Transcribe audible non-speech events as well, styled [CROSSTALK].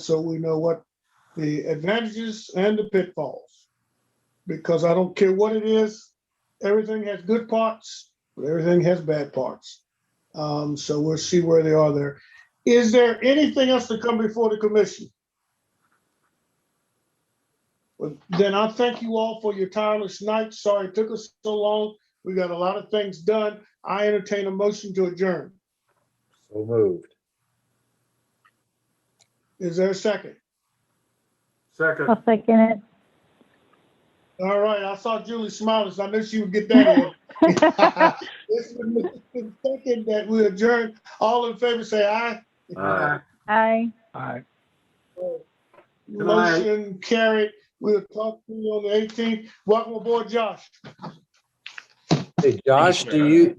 so we know what the advantages and the pitfalls. Because I don't care what it is, everything has good parts, but everything has bad parts. Um, so we'll see where they are there. Is there anything else to come before the commission? Well, Then I thank you all for your tireless night. Sorry it took us so long. We got a lot of things done. I entertain a motion to adjourn. So moved. Is there a second? Second, I'll second it. All right, I saw Julie smiling, so I knew she would get that in. [LAUGHS] It's been moved and seconded that we adjourn. All in favor, say aye. Aye. Aye. Aye. night. Motion carried. We'll talk to you on the eighteenth. Welcome aboard, Josh. Hey, Josh, do you,